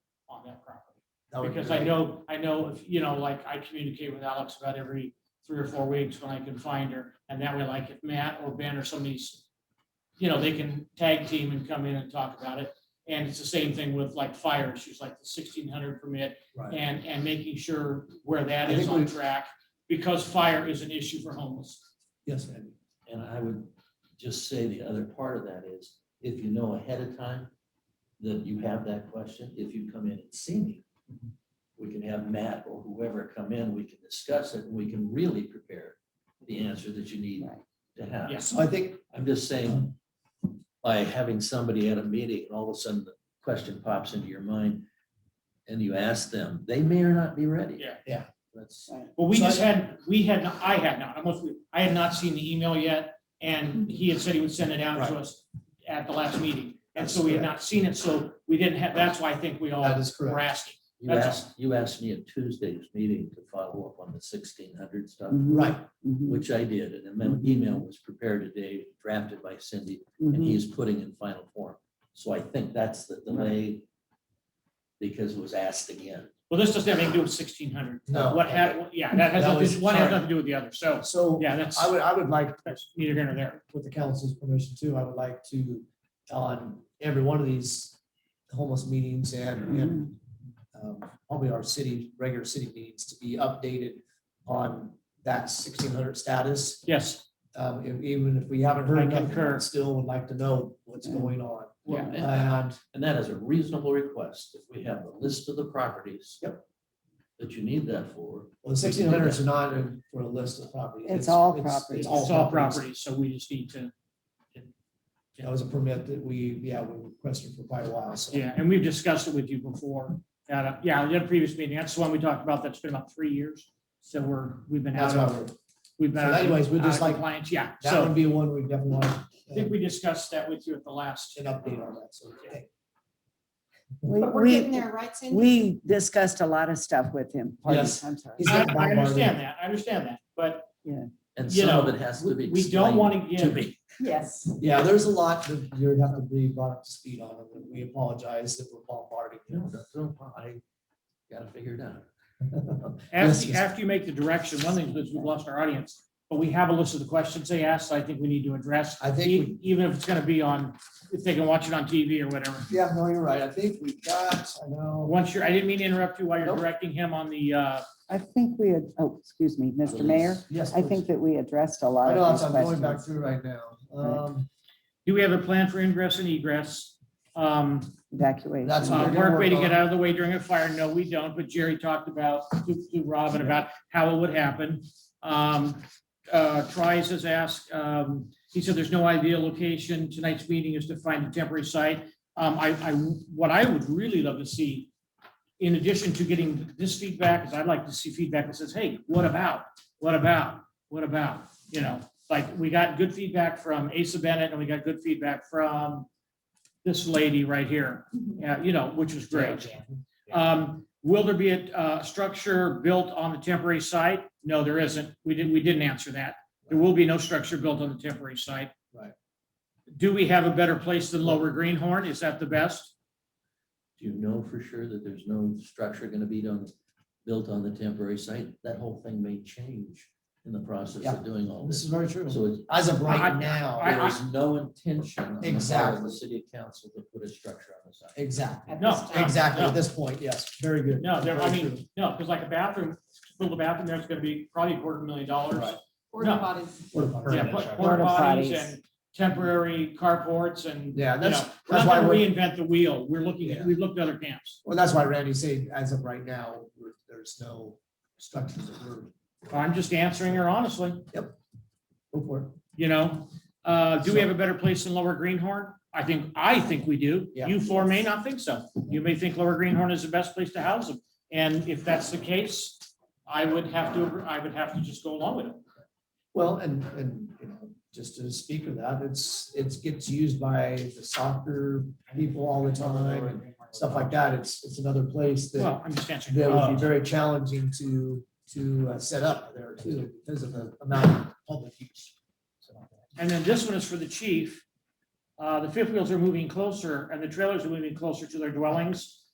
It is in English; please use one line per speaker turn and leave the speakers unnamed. on that property.
That would be
Because I
great.
know, I know, if you know, like I communicate with Alex about every three or four weeks when I can find her. And that way, like if Matt or Ben or somebody's, you know, they can tag team and come in and talk about it. And it's the same thing with like fire issues, like the sixteen hundred permit
Right.
and, and making sure where that
I
is
think
on
we've-
track. Because fire is an issue for homeless.
Yes, Andy.
And I would just say the other part of that is, if you know ahead of time that you have that question, if you come in and see me, we can have Matt or whoever come in, we can discuss it, and we can really prepare the answer that you need to have.
Yes.
So I think,
I'm just saying, by having somebody at a meeting and all of a sudden the question pops into your mind and you ask them, they may or not be ready.
Yeah.
Yeah.
That's,
Well, we
So I-
just had, we had, not- I had not, I must, be- I had not seen the email yet, and he had said he would send it out to
Right.
us at the last meeting. And
That's
so we had
correct.
not seen it, so we didn't have, that's why I think we
that
all
is
were
correct.
asking.
you
That's
asked, you asked me at Tuesday's meeting to follow up on the sixteen hundred stuff.
Right.
Mm-hmm.
which I did, and then an email was prepared today, drafted by Cindy, and
Mm-hmm.
he is putting in final form. So I think that's the delay because it was asked again.
Well, this doesn't have anything to do with sixteen hundred.
No.
What had, yeah, that has,
Oh, That
nothing-
was-
one has
sorry.
nothing to do with the other, so,
So
yeah, that's,
I would, I would like,
that's neither here nor there.
with the council's permission too, I would like to, on every one of these homeless meetings
Mm-hmm.
and, and um, probably our city, regular city meetings to be updated on that sixteen hundred status.
Yes,
Um, if- even if we haven't
I
heard nothing,
concur.
I still would like to know what's going on.
Well, and-
um,
And
And that is a reasonable request. If we have the list of the properties that you need that for,
Well, sixteen hundred is not in- for a list of properties.
It's all
It's
properties.
all
it's all
properties.
properties, so we just need to,
That was a permit that we, yeah, we requested for quite a while, so.
yeah, and we've discussed it with you before. That, uh, yeah, the previous meeting, that's the one we talked about, that's been about three years, so we're, we've been
That's
out
why
of.
we're,
We've been.
So anyways, we'd
out of
just like-
Uh, compliance, Yeah,
that would
so
be one we definitely want uh,
I think we discussed that with you at the last.
an update on that, so. okay.
We,
But we're getting
we,
there, right, Cindy?
we discussed a lot of stuff with him. Pardon,
Yes.
I'm sorry.
He's
I,
got
I
bombarded.
understand that, I understand that, but
and
You
some of
know,
it has to be
we we don't want
explained
to
to
give,
me.
Yes.
Yeah, there's a lot that you'd have to be brought up to speed on, and we apologize that we're bombarding
No,
you.
that's no problem. I gotta figure it out.
Yes,
after,
yes.
after you make the direction, one thing is we've lost our audience, but we have a list of the questions they asked, I think we need to address.
I think
e- Even if it's gonna be on, if they can watch it on TV or whatever.
Yeah, no, you're right. I think we got, I know.
Once you're, I didn't mean to interrupt you while you're
Nope.
directing him on the, uh,
I think we had, oh, excuse me, Mr. Mayor,
Yes.
I think that we addressed a
I
lot
know,
of these
I'm going back
questions.
through right now. Um,
do we have a plan for ingress and egress? Um,
That's
Evacuation.
what
Uh,
we're gonna
Work way to
work
get
on.
out of the way during a fire, no, we don't, but Jerry talked about, to to Robin about how it would happen. Um, uh, Trice has asked, um, he said there's no ideal location, tonight's meeting is to find a temporary site. Um, I, I, what I would really love to see, in addition to getting this feedback, is I'd like to see feedback that says, hey, what about, what about, what about? You know, like, we got good feedback from Asa Bennett, and we got good feedback from this lady right here, yeah, you know, which was great. Um, will there be a, uh structure built on the temporary site? No, there isn't. We didn't, we didn't answer that. There will be no structure built on the temporary site.
Right.
Do we have a better place than Lower Greenhorn? Is that the best?
Do you know for sure that there's no structure gonna be done, built on the temporary site? That whole thing may change in the process
Yeah.
of doing all
This is
this.
very true.
So it's,
As of
I-
right now,
I-
there is no intention on the part of
Exactly.
the city council to put a structure on the site.
exactly,
At
No,
this time.
exactly,
No.
at this point, yes, very good.
No, there, I
Very true.
mean, no, because like a bathroom, build a bathroom, there's gonna be probably a quarter million dollars.
Right.
Porta
No.
potties.
What about-
Yeah, put porta
Porta
potties
potties.
and temporary carports and, you
Yeah,
know,
that's,
we're
that's
not
why
gonna
we're,
reinvent the wheel. We're looking, at
Yeah.
we've looked at other camps.
well, that's why Randy said, as of right now, we're- there's no structures that we're,
I'm just answering her honestly.
go for it.
you know? Uh, do we
So-
have a better place than Lower Greenhorn? I think, I think we do.
Yeah.
You four may not think so. You may think Lower Greenhorn is the best place to house them. And if that's the case, I would have to, agree- I would have to just go along with it.
Well, and, and, you know, just to speak of that, it's, it gets used by the soccer people all the time and stuff like that. It's, it's another place that,
Well, I'm just answering.
that would
Uh,
be very challenging to, to uh, set up there too, because of the amount of public use. So,
And then this one is for the chief. Uh, the fifth wheels are moving closer and the trailers are moving closer to their dwellings.